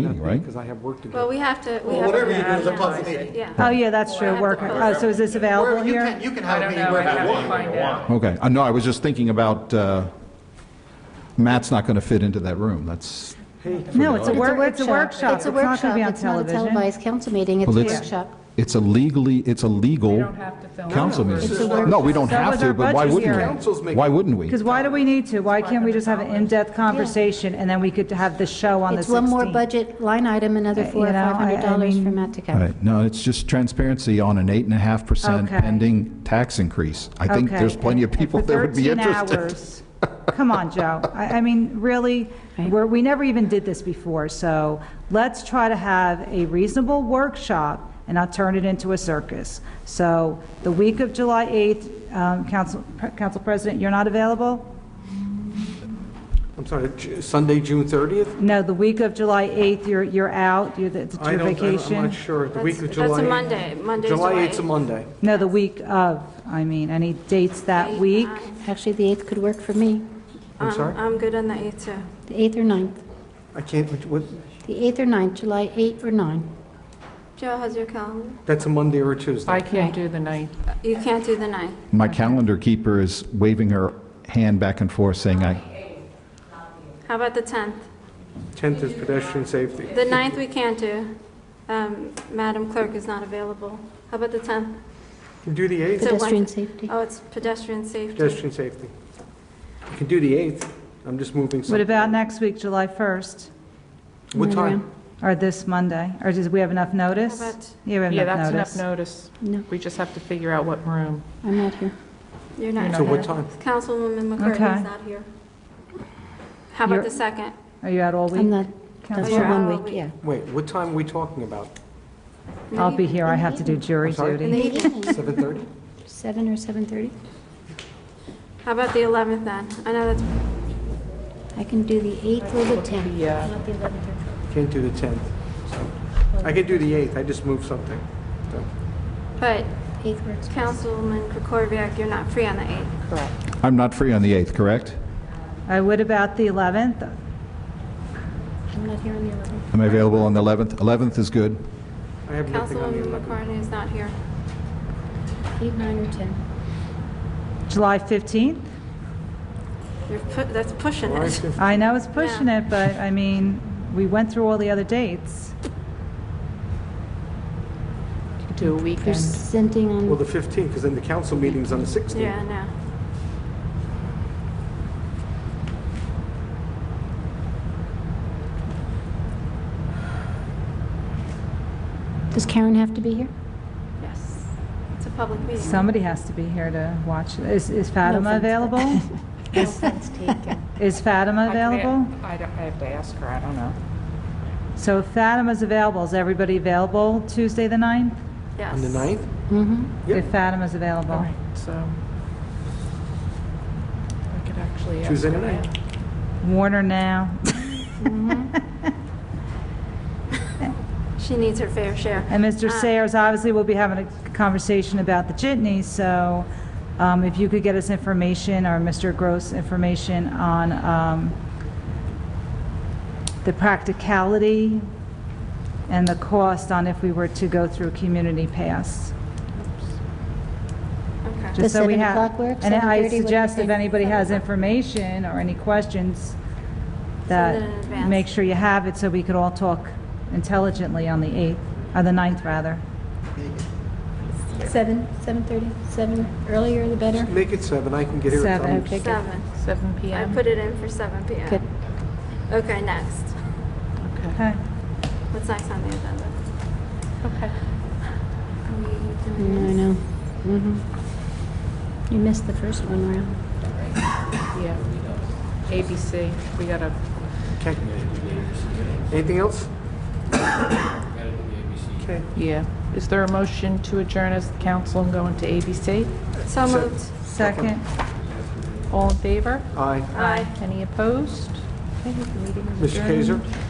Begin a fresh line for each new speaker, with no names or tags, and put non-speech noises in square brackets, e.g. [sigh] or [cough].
right? Because I have work to do.
Well, we have to, we
Well,
have
whatever you
to,
do is above the meeting.
yeah.
Oh, yeah, that's true, work, oh, so is this available
Wherever you
here?
can, you can
I
have a
don't
meeting
know, I
wherever you
have to
want.
find out.
Okay, Uh, no, I was just thinking about, uh, Matt's not going to fit into that room, that's,
No, it's a
It's
work, it's a workshop, it's
It's a
not going to
workshop.
be on
It's not a
television.
televised council meeting. It's
Well,
a
it's-
workshop.
it's a legally, it's a
We
legal
don't have to film.
council meeting.
It's a workshop.
No, we don't
That
have
was
to,
our
but why
budget
wouldn't
hearing.
we?
Council's making-
Why wouldn't we?
Because why do we need to? Why can't we just have an in-depth conversation, and then we could have the show on the 16th?
It's one more budget line item, another
Uh,
four
you
or
know, I- I
five hundred dollars for
mean-
Matt to
All
cover.
right, no, it's just transparency on an eight and a half percent
Okay.
pending tax increase. I think
Okay,
there's plenty of
and- and
people
for
that would be
13
interested.
hours. Come on, Joe. I, I mean, really, we're, we never even did this before, so let's try to have a reasonable workshop and not turn it into a circus. So the week of July 8th, um, Council, Council President, you're not available?
I'm sorry, Ju- Sunday, June 30th?
No, the week of July 8th, you're, you're out, you're, it's
I
your
don't, I don't-
vacation.
I'm not sure. The week of
That's-
July.
that's a
8th.
Monday. Monday's
July
July
8th is a
8th.
Monday.
No, the week of, I mean, any dates that week?
uh, Actually, the eighth could work for me,
I'm sorry?
Um, I'm good on the 8th, too.
the eighth or ninth.
I can't, what,
The eighth or ninth, July eighth or nine.
Joe, how's your calendar?
that's a Monday or a Tuesday.
I can't do the night.
You can't do the 9th.
[laughs] My calendar keeper is waving her hand back and forth saying, I,
How about the 10th?
10th is pedestrian safety.
The 9th we can't do. Um, Madam Clerk is not available. How about the 10th?
You can do the 8th,
It's a
Pedestrian
Wednesday.
safety.
Oh, it's pedestrian safety.
pedestrian safety. You can do the 8th. I'm just moving something.
What about next week, July 1st?
What time?
Or this Monday? Or does we have enough notice?
How about-
Yeah, we have
Yeah,
enough notice.
that's enough notice.
No,
We just have to figure out what room.
I'm not here.
You're
You're
not.
not
So what time?
Councilwoman McCarthy
Okay.
is not here. How about
You're-
the 2nd?
Are you out all week?
I'm not,
Council?
that's
you're
for
out all
one week,
week.
yeah.
Wait, what time are we talking about?
I'll be here, I have to do jury
I'm sorry?
In the
duty.
evening?
7:30?
[laughs] Seven or seven-thirty?
How about the 11th then? I know that's,
I can do the eighth or the tenth,
Yeah.
not the eleventh or twelfth.
Can't do the 10th. so. I can do the 8th, I just moved something. So,
but
Eighth works. best.
Councilman Krokoviac, you're not free on the 8th.
I'm not free on the 8th, correct?
Uh, What about the 11th?
I'm not here on the eleventh.
Am I available on the 11th? 11th is good.
I have nothing on the
Councilwoman
11th.
McCartney is not here.
Eight, nine, or ten.
July 15th?
You're pu- That's pushing
All right,
it.
fif-
I know it's pushing it, but I mean, we went through all the other dates.
Do a
You're
weekend.
sending
Well,
on,
the 15th, because then the council meeting's on the 16th.
Yeah, no.
does Karen have to be here?
Yes. It's a public meeting.
Somebody has to be here to watch. Is is Fatima
offense.
available?
[laughs]
Is Fatima available?
I don't- I have to ask her, I don't know.
So if Fatima's available, is everybody available Tuesday, the 9th?
Yes.
On the 9th? Yep.
If Fatima's
All
available.
right, so. I could actually ask her.
Tuesday
that.
night.
Warner
[laughs]
now.
She needs her fair share.
And Mr.
Uh,
Ah.
Sayers, obviously, we'll be having a conversation about the jitney, so um, if you could get us information, or Mr. Gross information on um, the practicality and the cost on if we were to go through community pass.
Okay.
just
Does
so we
seven
have-
o'clock work?
And I
7:30, what do you
suggest if
think?
anybody has information or any questions,
Send it in
that,
advance.
make sure you have it so we could all talk intelligently on the 8th, or the 9th, rather.
Seven, seven-thirty, seven, earlier the better.
Make it 7, I can get here at
Seven.
some-
Okay, good.
Seven.
7
I
PM?
put it in for seven PM.
Good.
Okay, next.
Okay.
Okay.
What's next on the agenda?
Okay.
Are we
I
Mm,
doing this?
know. Mhm. You missed the first one round.
Yeah. ABC, we got a,
Okay. Anything else? Okay,
yeah. Is there a motion to adjourn as the council and go into ABC?
So moved.
Second.
All in favor?
aye.
Aye.
Any opposed? Okay, the meeting is
Mr.
adjourned.
Kaiser?